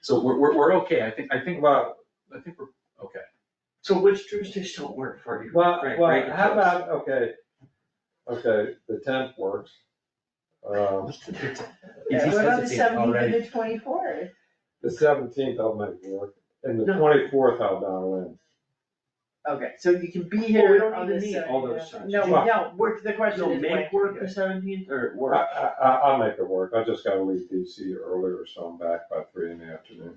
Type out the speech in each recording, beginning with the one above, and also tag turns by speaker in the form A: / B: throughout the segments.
A: So we're, we're, we're okay, I think, I think, well, I think we're, okay.
B: So which Tuesdays don't work for you?
C: Well,
B: Frank, break
C: well,
B: it
C: how
B: to us.
C: about, okay, okay, the tenth works. Um,
A: He just
D: What about the
A: hesitated
D: seventeenth
A: already.
D: and the twenty-fourth?
C: the seventeenth I'll make work, and the
B: No.
C: twenty-fourth I'll dial in.
B: Okay, so you can be
D: Well, we don't
B: here on
D: need
B: the
D: to
B: seventh.
D: say,
C: No,
D: yeah. No,
C: we
D: we
C: Well-
D: don't, work, the question
B: You'll
D: is
B: make work the seventeenth or
C: I,
B: work?
C: I, I- I'll make it work, I just gotta leave DC earlier, so I'm back by three in the afternoon.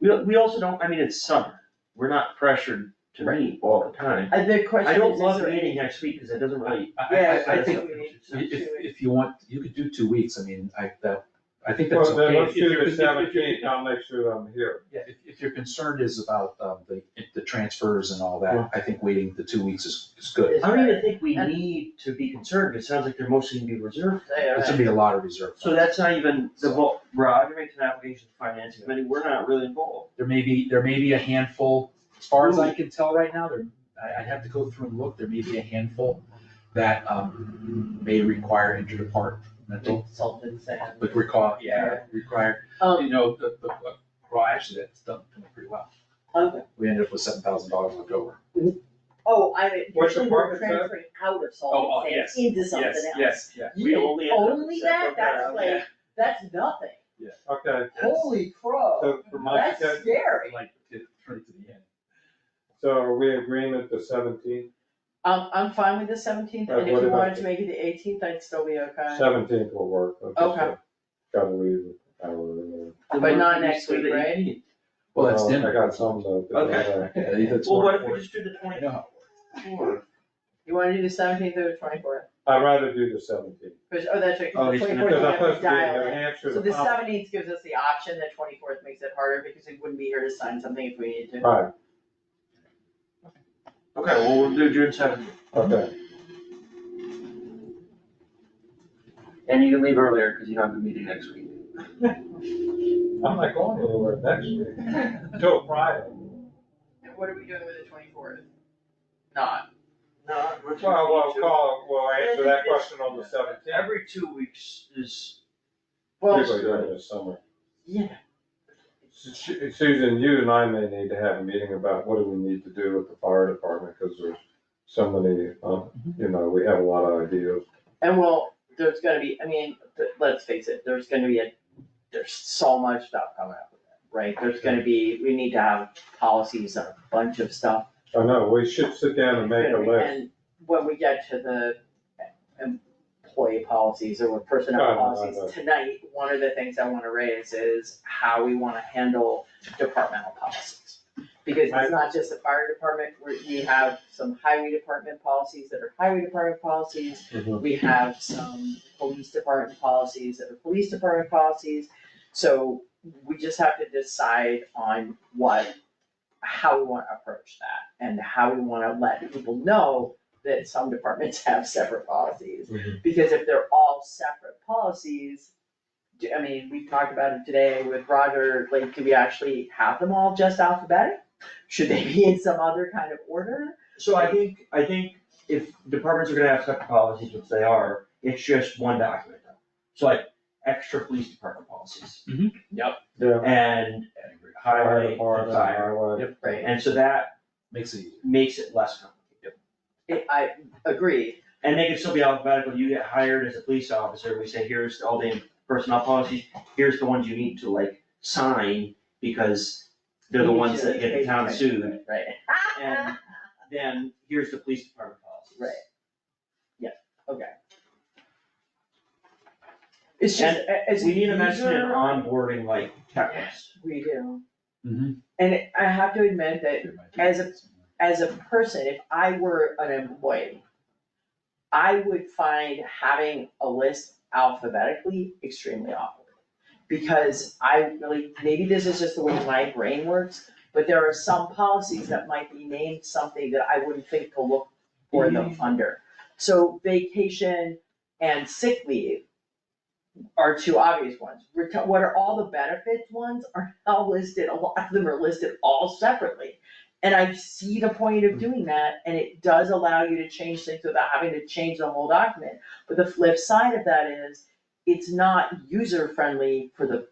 B: We, we also don't, I mean, it's summer, we're not pressured to meet all the time.
D: Uh, The question is.
B: I don't
D: is
B: love
D: there any-
B: meeting next week, cause it doesn't really,
A: I,
D: Yeah,
A: I, I think,
D: we need to do
A: if,
D: it.
A: if you want, you could do two weeks, I mean, I, that, I think that's
C: Well,
A: okay.
C: then let's
A: If you're-
C: do the
A: if you're- if you're-
C: seventeenth, I'll make sure I'm here.
A: Yeah, if, if your concern is about, um, the, the transfers and all that, I think waiting the two weeks is, is good.
D: Is-
B: I don't even think we
D: And-
B: need to be concerned, it sounds like they're mostly gonna be reserved.
A: It should be a lot of reserve.
B: So that's not even, the, vo- Roger makes an application to finance committee, we're not really involved.
A: There may be, there may be a handful, as far as I can tell right now, there, I, I'd have to go through and look, there may be a handful that, um, may require interdepartmental,
D: Consultants and.
A: but recall, yeah, require, you
D: Um,
A: know, the, the, uh, well, actually, that's done pretty well.
D: okay.
A: We ended up with seven thousand dollars left over.
D: uh, oh, I, mean,
C: What's the
D: we
C: part
D: were
C: with that?
D: transferring out of
A: Oh, oh,
D: Salted
A: yes,
D: Sands into something else.
A: yes, yeah.
B: We only end up with
D: Only
B: seven
D: that, that's
B: thousand.
D: like, that's nothing,
C: Okay,
D: holy crow,
C: so for my,
D: that's scary.
A: Like, it turned to the end.
C: so are we agreement the seventeenth?
D: Um, I'm fine with the seventeenth,
C: Right,
D: and if
C: what
D: you
C: about
D: wanted to
C: the-
D: make it the eighteenth, I'd still be okay.
C: Seventeenth will work, I just
D: Okay.
C: gotta leave an hour earlier.
B: The
D: But not
B: one
D: next
B: thing
D: week,
B: that you
D: right?
B: need.
A: Well, that's
C: Well,
A: dinner.
C: I got something to.
B: Okay.
A: Yeah, that's
B: Well,
A: more
B: what if we
A: important.
B: just do the
A: I
B: twenty
A: know how it works.
B: four?
D: You wanna do the seventeenth or the twenty-fourth,
C: I'd rather do the seventeenth.
D: cause, oh, that's right,
A: Oh,
D: the
A: he's gonna-
D: twenty-fourth,
C: Because
D: you
C: I'm supposed
D: have to
C: to be in
D: dial
C: New
D: in.
C: Hampshire.
D: So
C: the
D: the
A: Oh.
C: following-
D: seventeenth gives us the option, the twenty-fourth makes it harder, because we wouldn't be here to sign something if we needed to.
C: Right,
B: Okay, well, we'll do June seventh,
C: okay,
B: and you can leave earlier, cause you don't have a meeting next week.
C: I'm not going anywhere next week, till Friday.
D: And what are we doing with the twenty-fourth? Not.
B: No, we're.
C: Well, we'll
B: two-
C: call, we'll answer that question on the seventeenth.
B: Every two weeks is,
D: Well,
B: Yes.
C: Usually during the summer.
D: yeah,
C: Su- Susan, you and I may need to have a meeting about what do we need to do with the fire department, because there's so many, um,
B: Mm-hmm.
C: you know, we have a lot of ideas.
D: and well, there's gonna be, I mean, th- let's face it, there's gonna be a, there's so much stuff coming up with that, right? There's gonna be, we need to have policies on a bunch of stuff.
C: I know, we should sit down and make a list.
D: And when we get to the employee policies or personnel
C: Right, right,
D: policies
C: right.
D: tonight, one of the things I wanna raise is how we wanna handle departmental policies. Because
C: I-
D: it's not just the fire department, we, we have some highway department policies that are highway department policies.
C: Mhm.
D: We have some police department policies that are police department policies. So we just have to decide on what, how we wanna approach that and how we wanna let people know that some departments have separate policies.
C: Mhm.
D: Because if they're all separate policies, do- I mean, we talked about it today with Roger, like, do we actually have them all just alphabetic? Should they be in some other kind of order?
B: so I think, I think if departments are gonna have separate policies, which they are, it's just one document. though. So like, extra police department policies,
C: Yeah.
B: and
C: Fire
B: highway, and
C: department,
B: fire,
C: highway.
A: Yep.
D: Right.
B: and so that
A: Makes it easier.
B: makes it less complicated.
D: I- I agree,
B: And they can still be alphabetical, you get hired as a police officer, we say, here's all the personnel policies, here's the ones you need to like sign, because they're the ones that get the town sued,
D: right?
B: and then here's the police department policies.
D: Right. It's just, as
B: We need a mention in onboarding like checklist.
D: We do,
A: Mhm.
D: and I have to admit that As a- as a person, if I were an employee, I would find having a list alphabetically extremely awkward. Because I really, maybe this is just the way my brain works, but there are some policies that might be named something that I wouldn't think to look for them under. So vacation and sick leave are two obvious ones. Reti- What are all the benefits ones are all listed, a lot of them are listed all separately. And I see the point of doing that, and it does allow you to change things without having to change the whole document. But the flip side of that is, it's not user friendly for the